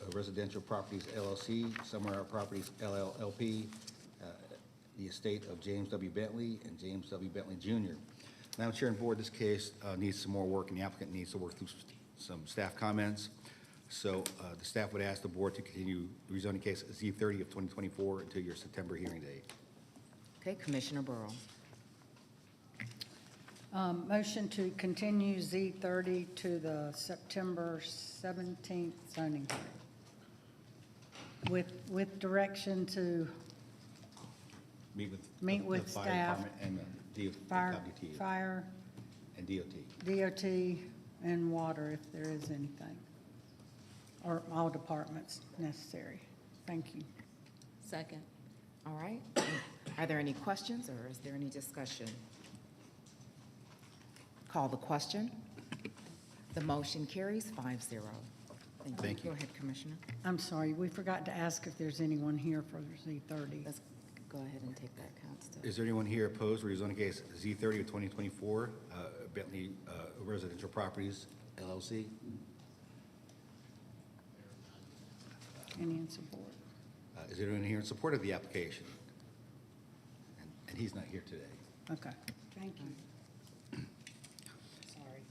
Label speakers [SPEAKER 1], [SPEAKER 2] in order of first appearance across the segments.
[SPEAKER 1] uh, Residential Properties LLC, Summerall Properties LLLP, uh, the estate of James W. Bentley and James W. Bentley Jr. Madam Chair and Board, this case uh, needs some more work, and the applicant needs to work through s- some staff comments. So uh, the staff would ask the board to continue the rezoning case Z30 of 2024 until your September hearing date.
[SPEAKER 2] Okay, Commissioner Burrow.
[SPEAKER 3] Um, Motion to continue Z30 to the September 17th zoning hearing with, with direction to
[SPEAKER 1] Meet with.
[SPEAKER 3] Meet
[SPEAKER 1] the- the
[SPEAKER 3] with
[SPEAKER 1] fire
[SPEAKER 3] staff.
[SPEAKER 1] department And the D-
[SPEAKER 3] fire,
[SPEAKER 1] WTA
[SPEAKER 3] fire,
[SPEAKER 1] and DOT.
[SPEAKER 3] DOT, and water if there is anything, or all departments necessary. Thank you.
[SPEAKER 2] Second. All right. Are there any questions or is there any discussion? Call the question. The motion carries five zero.
[SPEAKER 1] Thank you.
[SPEAKER 2] Go ahead, Commissioner.
[SPEAKER 3] I'm sorry, we forgot to ask if there's anyone here for Z30.
[SPEAKER 2] Let's go ahead and take that, Constance.
[SPEAKER 1] Is there anyone here opposed to rezoning case Z thirty of twenty twenty-four, Bentley uh, Residential Properties LLC?
[SPEAKER 3] Any in support?
[SPEAKER 1] Uh, Is there anyone here in support of the application? And- And he's not here today.
[SPEAKER 3] Okay. Thank you. Sorry.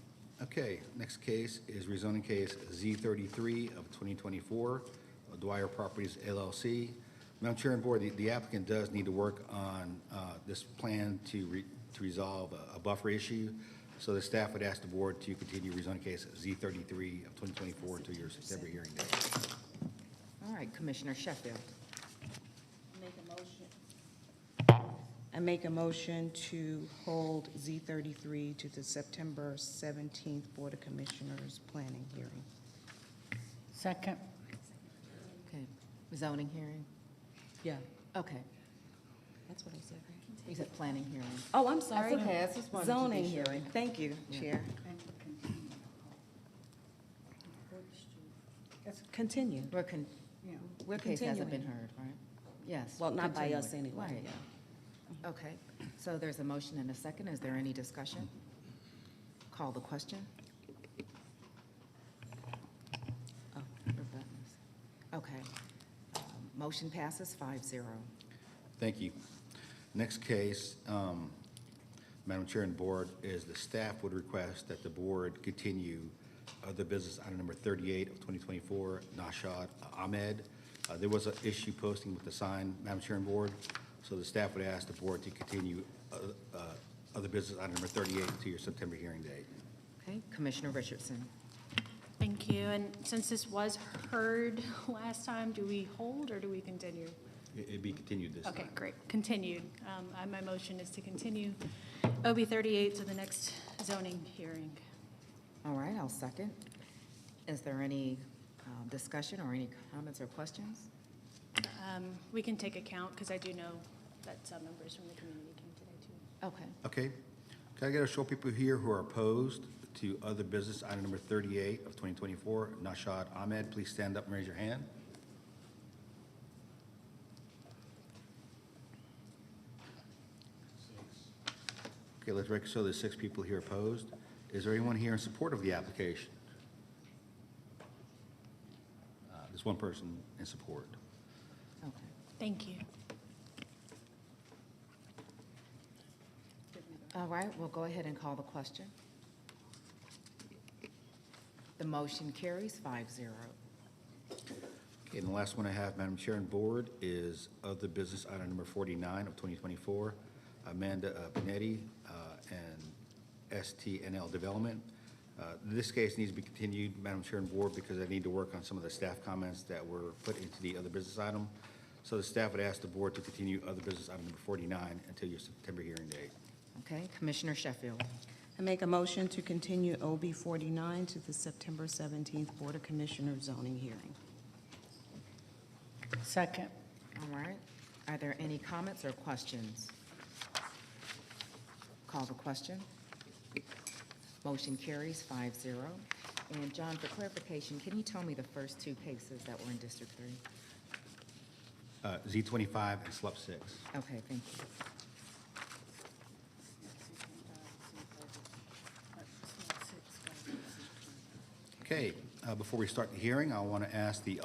[SPEAKER 1] Okay, next case is rezoning case Z thirty-three of twenty twenty-four, Dwyer Properties LLC. Madam Chair and Board, the- the applicant does need to work on uh, this plan to re- to resolve a- a buffer issue. So the staff would ask the board to continue rezoning case Z thirty-three of twenty twenty-four to your September hearing date.
[SPEAKER 2] All right, Commissioner Sheffield.
[SPEAKER 4] Make a motion. I make a motion to hold Z thirty-three to the September seventeenth Board of Commissioners Planning Hearing.
[SPEAKER 3] Second.
[SPEAKER 2] Okay. Zoning hearing? Yeah. Okay. That's what I said, right? You said planning hearing.
[SPEAKER 4] Oh, I'm
[SPEAKER 2] sorry. okay. I just wanted to be
[SPEAKER 4] Zoning
[SPEAKER 2] sure.
[SPEAKER 4] hearing, thank you, Chair. That's- Continue.
[SPEAKER 2] We're con,
[SPEAKER 3] Yeah.
[SPEAKER 2] Where case hasn't been heard, right? Yes.
[SPEAKER 4] Well, not by us
[SPEAKER 2] continuing.
[SPEAKER 4] anyway,
[SPEAKER 2] Right. Okay, so there's a motion and a second. Is there any discussion? Call the question. Oh, your buttons. Okay. Um, Motion passes five zero.
[SPEAKER 1] Thank you. Next case, um, Madam Chair and Board, is the staff would request that the board continue uh, the business item number 38 of 2024, Nashad Ahmed. Uh, There was an issue posting with the sign, Madam Chair and Board, so the staff would ask the board to continue uh, uh, other business item number 38 to your September hearing date.
[SPEAKER 2] Okay, Commissioner Richardson.
[SPEAKER 5] Thank you. And since this was heard last time, do we hold or do we continue?
[SPEAKER 1] It- It'd be continued this time.
[SPEAKER 5] Okay, great, continued. Um, I- My motion is to continue OB 38 to the next zoning hearing.
[SPEAKER 2] All right, I'll second. Is there any um, discussion or any comments or questions?
[SPEAKER 5] Um, We can take account, because I do know that some members from the community came today, too.
[SPEAKER 2] Okay.
[SPEAKER 1] Okay. Can I get a show of people here who are opposed to other business item number 38 of 2024, Nashad Ahmed? Please stand up and raise your hand. Okay, let's record, so there's six people here opposed. Is there anyone here in support of the application? Uh, There's one person in support.
[SPEAKER 2] Okay.
[SPEAKER 5] Thank you.
[SPEAKER 2] All right, we'll go ahead and call the question. The motion carries five zero.
[SPEAKER 1] Okay, and the last one I have, Madam Chair and Board, is of the business item number 49 of 2024, Amanda uh, Benetti uh, and STNL Development. Uh, This case needs to be continued, Madam Chair and Board, because I need to work on some of the staff comments that were put into the other business item. So the staff would ask the board to continue other business item number 49 until your September hearing date.
[SPEAKER 2] Okay, Commissioner Sheffield.
[SPEAKER 4] I make a motion to continue OB forty-nine to the September seventeenth Board of Commissioners Zoning Hearing.
[SPEAKER 3] Second.
[SPEAKER 2] All right, are there any comments or questions? Call the question. Motion carries five zero. And John, for clarification, can you tell me the first two cases that were in District Three?
[SPEAKER 1] Uh, Z25 and SLUP 6.
[SPEAKER 2] Okay, thank you.
[SPEAKER 1] Okay, uh, before we start the hearing, I want to ask the